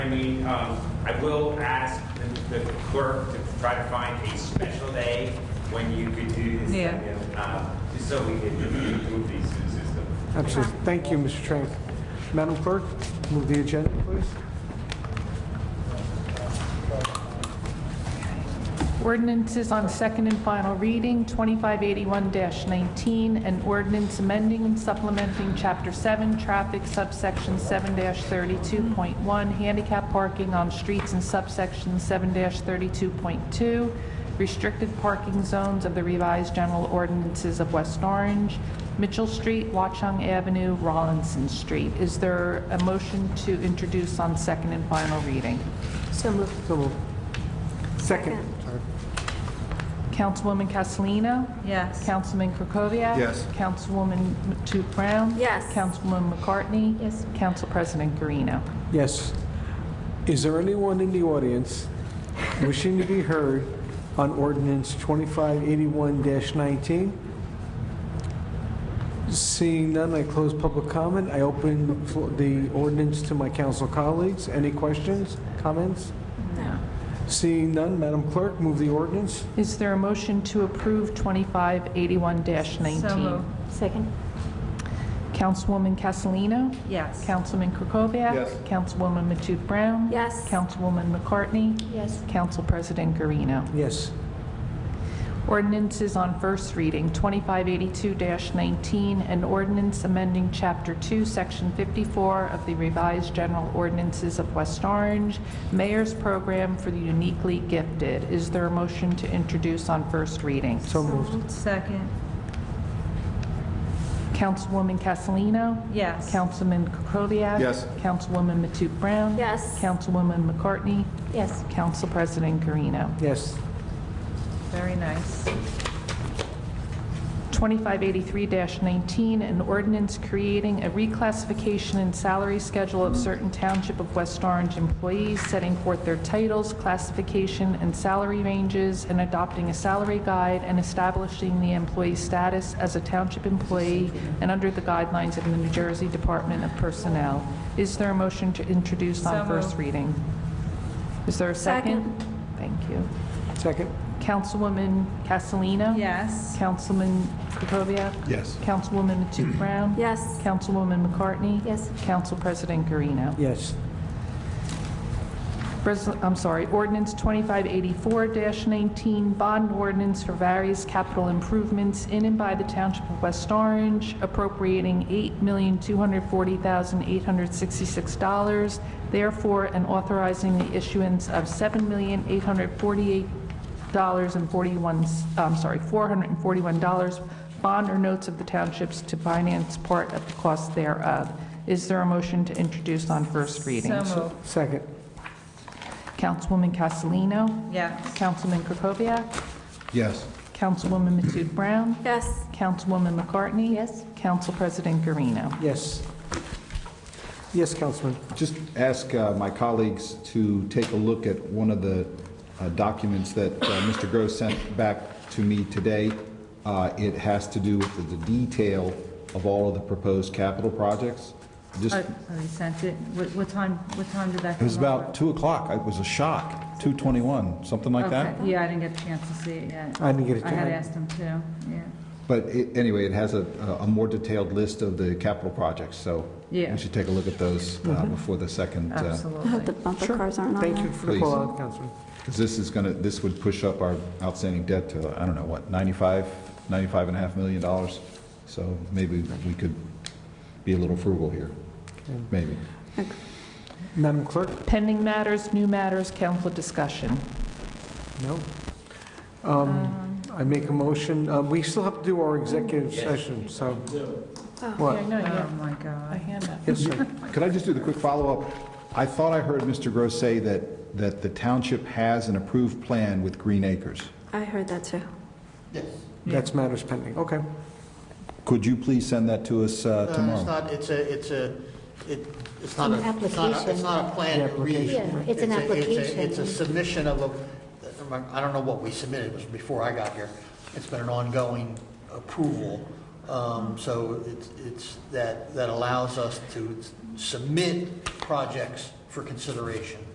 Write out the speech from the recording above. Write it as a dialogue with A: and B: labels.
A: I mean, um, I will ask the the clerk to try to find a special day when you could do this.
B: Yeah.
A: uh, Just so we can improve these through the system.
C: Absolutely. Thank you, Mr. Train. Madam Clerk, move the agenda, please.
B: Ordinances on second and final reading, 2581-19, an ordinance amending and supplementing Chapter 7, Traffic subsection 7-32.1, handicap parking on streets and subsection 7-32.2, restricted parking zones of the revised general ordinances of West Orange, Mitchell Street, Watchung Avenue, Rollinson Street. Is there a motion to introduce on second and final reading?
D: So moved.
C: So moved. Second. Sorry.
B: Councilwoman Castellino?
D: Yes.
B: Councilman Krokoviac?
E: Yes.
B: Councilwoman Matute Brown?
D: Yes.
B: Councilwoman McCartney? Yes. Council President Garino.
C: Yes. Is there anyone in the audience wishing to be heard on ordinance 2581-19? Seeing none, I close public comment. I open the flo- the ordinance to my council colleagues. Any questions, comments? Seeing none, Madam Clerk, move the ordinance.
B: Is there a motion to approve 2581-19?
D: So moved. Second?
B: Councilwoman Castellino?
D: Yes.
B: Councilman Krokoviac?
E: Yes.
B: Councilwoman Matute Brown?
D: Yes.
B: Councilwoman McCartney?
D: Yes.
B: Council President Garino.
C: Yes.
B: Ordinances on first reading, 2582-19, an ordinance amending Chapter 2, Section 54 of the revised general ordinances of West Orange, Mayor's Program for the Uniquely Gifted. Is there a motion to introduce on first reading?
C: So moved.
D: Second?
B: Councilwoman Castellino?
D: Yes.
B: Councilman Krokoviac?
E: Yes.
B: Councilwoman Matute Brown?
D: Yes.
B: Councilwoman McCartney?
D: Yes.
B: Council President Garino.
C: Yes.
D: Very nice.
B: 2583-19, an ordinance creating a reclassification and salary schedule of certain Township of West Orange employees, setting forth their titles, classification, and salary ranges, and adopting a salary guide and establishing the employee's status as a Township employee and under the guidelines of the New Jersey Department of Personnel. Is there a motion to introduce
D: So
B: on
D: moved.
B: first reading? Is there a second? Thank you.
C: Second.
B: Councilwoman Castellino?
D: Yes.
B: Councilman Krokoviac?
E: Yes.
B: Councilwoman Matute Brown?
D: Yes.
B: Councilwoman McCartney?
D: Yes.
B: Council President Garino.
C: Yes.
B: Res- I'm sorry, ordinance 2584-19, bond ordinance for various capital improvements in and by the Township of West Orange, appropriating $8,240,866, therefore, and authorizing the issuance of $7,848.41, I'm sorry, $441 bond or notes of the townships to finance part of the cost thereof. Is there a motion to introduce on first reading?
D: moved.
C: Second.
B: Councilwoman Castellino?
D: Yes.
B: Councilman Krokoviac?
E: Yes.
B: Councilwoman Matute Brown?
D: Yes.
B: Councilwoman McCartney?
D: Yes.
B: Council President Garino.
C: Yes. Yes, Councilman.
E: Just ask uh, my colleagues to take a look at one of the uh, documents that uh, Mr. Gross sent back to me today. Uh, It has to do with the- the detail of all of the proposed capital projects. Just,
F: Oh,
E: it
F: oh, they sent it. What, what time, what time did that come
G: It was about
F: over?
G: 2 o'clock. It was a shock, 2:21, something like that.
F: Okay, yeah, I didn't get a chance to see it yet.
C: I didn't get a
F: I had
C: chance.
F: asked them too, yeah.
E: But it- anyway, it has a a more detailed list of the capital projects, so
F: Yeah. Mm-hmm.
E: we should take a look at those uh, before the second, uh,
D: I hope
F: Absolutely.
D: the bumper cars aren't on
C: Thank you
D: there.
C: for the call out, Councilman.
E: because this is going to, this would push up our outstanding debt to, I don't know, what, 95, 95 and a half million dollars? So maybe we could be a little frugal here, maybe.
C: Madam Clerk?
B: Pending matters, new matters, council discussion.
C: No. Um, I make a motion, uh, we still have to do our executive session, so. What?
B: no,
F: Oh, my
B: A
F: God.
B: hand up.
C: Yes, sir.
E: Could I just do the quick follow-up? I thought I heard Mr. Gross say that, that the township has an approved plan with Green Acres.
D: I heard that too.
H: Uh,
C: That's matters pending. Okay.
E: Could you please send that to us uh,
H: Uh, It's
E: tomorrow?
H: not, it's a, it's a, it- it's not,
I: An
H: a- it's not, a- it's
I: application.
H: not a plan to read.
I: Yeah, it's an
H: a- a-
I: application.
H: It's a submission of a, I don't know what we submitted, it was before I got here. It's been an ongoing approval. Um, So it's, it's, that, that allows us to submit projects for consideration.